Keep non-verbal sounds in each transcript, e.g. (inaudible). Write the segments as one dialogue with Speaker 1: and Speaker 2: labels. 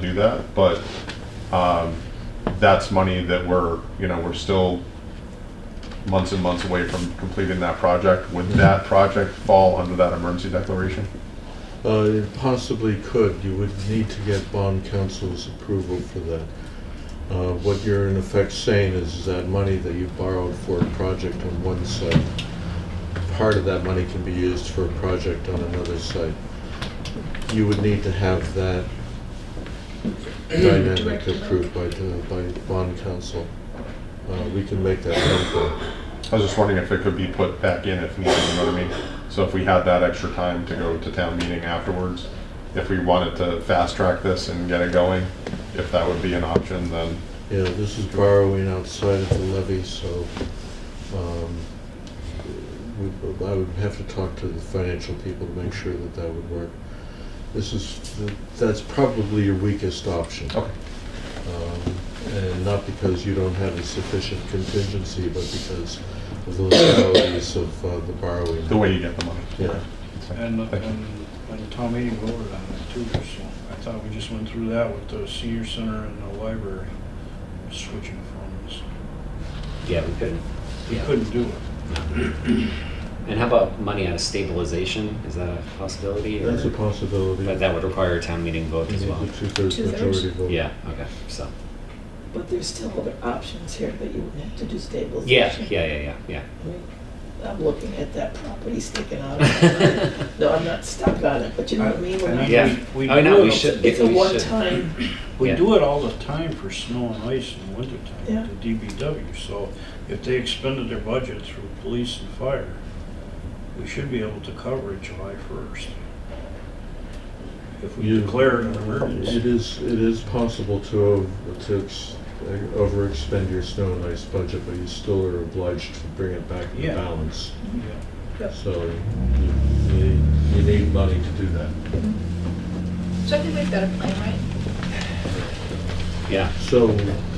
Speaker 1: do that, but um, that's money that we're, you know, we're still months and months away from completing that project. Would that project fall under that emergency declaration?
Speaker 2: Uh, It possibly could. You would need to get bond council's approval for that. Uh, What you're in effect saying is that money that you borrowed for a project on one site, part of that money can be used for a project on another site. You would need to have that dynamic
Speaker 3: Directed.
Speaker 2: approved by, the- by bond council. Uh, We can make that happen.
Speaker 1: I was just wondering if it could be put back in if needed, you know what I mean? So if we had that extra time to go to town meeting afterwards, if we wanted to fast track this and get it going, if that would be an option, then
Speaker 2: Yeah, this is borrowing outside of the levy, so um, we- I would have to talk to the financial people to make sure that that would work. This is, that's probably your weakest option.
Speaker 1: Okay.
Speaker 2: Um, And not because you don't have a sufficient contingency, but because of the legalities of uh, the borrowing.
Speaker 1: the way you get the money.
Speaker 2: Yeah.
Speaker 4: And, the-
Speaker 1: Thank you.
Speaker 4: and, and the town meeting voted on it too, so I thought we just went through that with the senior center and the library, switching phones.
Speaker 5: Yeah, we couldn't.
Speaker 4: We
Speaker 5: Yeah.
Speaker 4: couldn't do it.
Speaker 5: And how about money out of stabilization? Is that a possibility? or-
Speaker 2: That's a possibility.
Speaker 5: But that would require a town meeting vote
Speaker 2: You
Speaker 5: as
Speaker 2: need
Speaker 5: well.
Speaker 2: the two-thirds
Speaker 3: Two-thirds?
Speaker 2: majority vote.
Speaker 5: Yeah, okay, so,
Speaker 6: But there's still other options here that you would have to do
Speaker 5: yeah,
Speaker 6: stabilization.
Speaker 5: yeah, yeah, yeah,
Speaker 6: I mean, I'm looking at that property sticking out.
Speaker 5: (laughs) yeah.
Speaker 6: (laughs) No, I'm not stuck on it, but you know what I mean? We're
Speaker 4: I- I
Speaker 6: not-
Speaker 4: mean,
Speaker 5: Yeah,
Speaker 4: we- we
Speaker 5: I know,
Speaker 4: do
Speaker 5: we
Speaker 4: it-
Speaker 5: should.
Speaker 6: It's a
Speaker 5: we should.
Speaker 6: one-time,
Speaker 4: We
Speaker 5: Yeah.
Speaker 4: do it all the time for snow and ice in wintertime,
Speaker 6: Yeah.
Speaker 4: the DBW, so if they expended their budget through police and fire, we should be able to cover it July first. If we
Speaker 2: You-
Speaker 4: declare it an emergency.
Speaker 2: It is, it is possible to, o- to ex- overexpend your snow and ice budget, but you still are obliged to bring it back into
Speaker 4: Yeah.
Speaker 2: balance.
Speaker 4: Yeah.
Speaker 2: So you, you you need money to do that.
Speaker 3: So I think we've got a plan, right?
Speaker 5: Yeah,
Speaker 2: So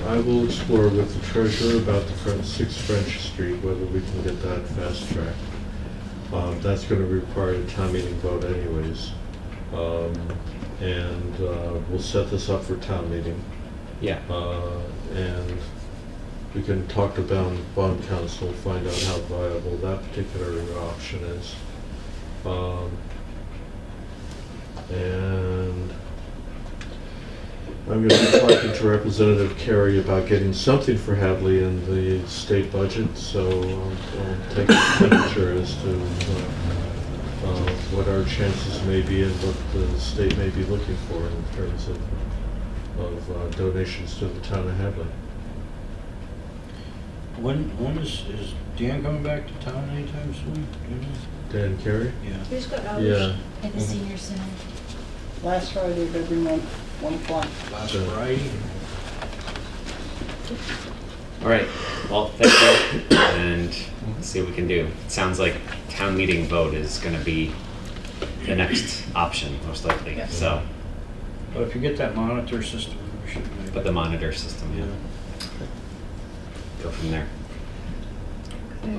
Speaker 2: I will explore with the treasurer about the front, six French Street, whether we can get that fast tracked. Um, that's gonna require a town meeting vote anyways. Um, and, uh, we'll set this up for town meeting.
Speaker 5: yeah,
Speaker 2: Uh, And we can talk to bond, bond council, find out how viable that particular option is. Um, And I'm gonna be talking to Representative Carey about getting something for Hadley in the state budget, so I'll I'll take a temperature as to uh, uh, what our chances may be and what the state may be looking for in terms of of uh, donations to the town of Hadley.
Speaker 4: When, when is, is Dan coming back to town anytime soon? Do
Speaker 2: Dan Carey?
Speaker 4: you know?
Speaker 3: Who's got
Speaker 2: Yeah.
Speaker 3: hours at the senior center?
Speaker 7: Last Friday of every month, one o'clock.
Speaker 4: Yeah, last
Speaker 2: So-
Speaker 4: Friday.
Speaker 5: all right, well, thank you, and let's see what we can do. It Sounds like town meeting vote is gonna be the next option, most likely,
Speaker 3: Yeah.
Speaker 5: so,
Speaker 4: But if you get that monitor system, we should make.
Speaker 5: but the monitor system,
Speaker 4: Yeah.
Speaker 5: yeah, go from there.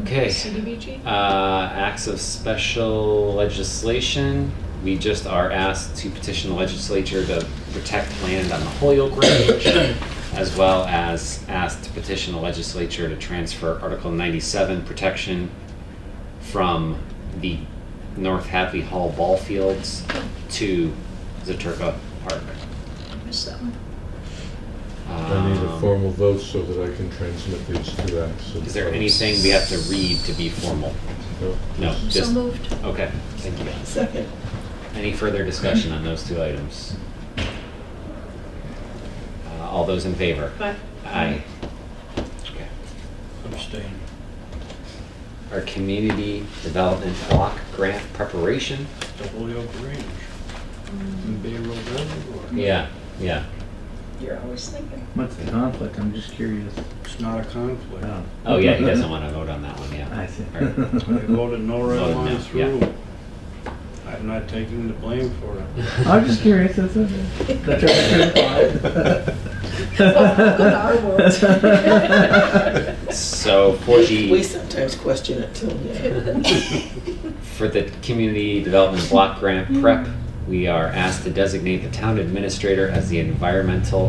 Speaker 5: Okay.
Speaker 3: CDBG?
Speaker 5: Uh, acts of special legislation. We just are asked to petition the legislature to protect land on the Holyoke Range, (coughs) as well as asked to petition the legislature to transfer Article 97 protection from the North Happy Hall ball fields to Zaturka Park.
Speaker 3: I missed that one.
Speaker 2: I need a
Speaker 5: Um,
Speaker 2: formal vote so that I can transmit these two acts. of-
Speaker 5: Is there anything we have to read to be formal?
Speaker 2: No.
Speaker 5: No,
Speaker 3: So
Speaker 5: just,
Speaker 3: moved.
Speaker 5: okay, thank you.
Speaker 6: second,
Speaker 5: Any further discussion on those two items? Uh, All those in favor?
Speaker 3: Aye.
Speaker 5: Aye. Okay.
Speaker 4: Abstain.
Speaker 5: Our community development block grant preparation?
Speaker 4: The Holyoke Range. And Bay Road Reservoir.
Speaker 5: Yeah, yeah.
Speaker 6: you're always thinking.
Speaker 8: What's the conflict? I'm just curious.
Speaker 4: It's not a conflict.
Speaker 8: Oh,
Speaker 5: Oh, yeah, he doesn't want to vote on that one, yeah.
Speaker 8: (laughs) I see.
Speaker 5: Or-
Speaker 4: They voted no
Speaker 5: (laughs)
Speaker 4: red
Speaker 5: Voted
Speaker 4: line
Speaker 5: no,
Speaker 4: through. I'm not taking the blame for it.
Speaker 8: (laughs) I'm just curious. That's it. That's (laughs)
Speaker 1: (laughs)
Speaker 3: Go to our
Speaker 5: (laughs)
Speaker 3: world. (laughs)
Speaker 5: So for
Speaker 6: We
Speaker 5: the,
Speaker 6: sometimes question it too, yeah.
Speaker 5: for the community development block grant prep, We are asked to designate the town administrator as the environmental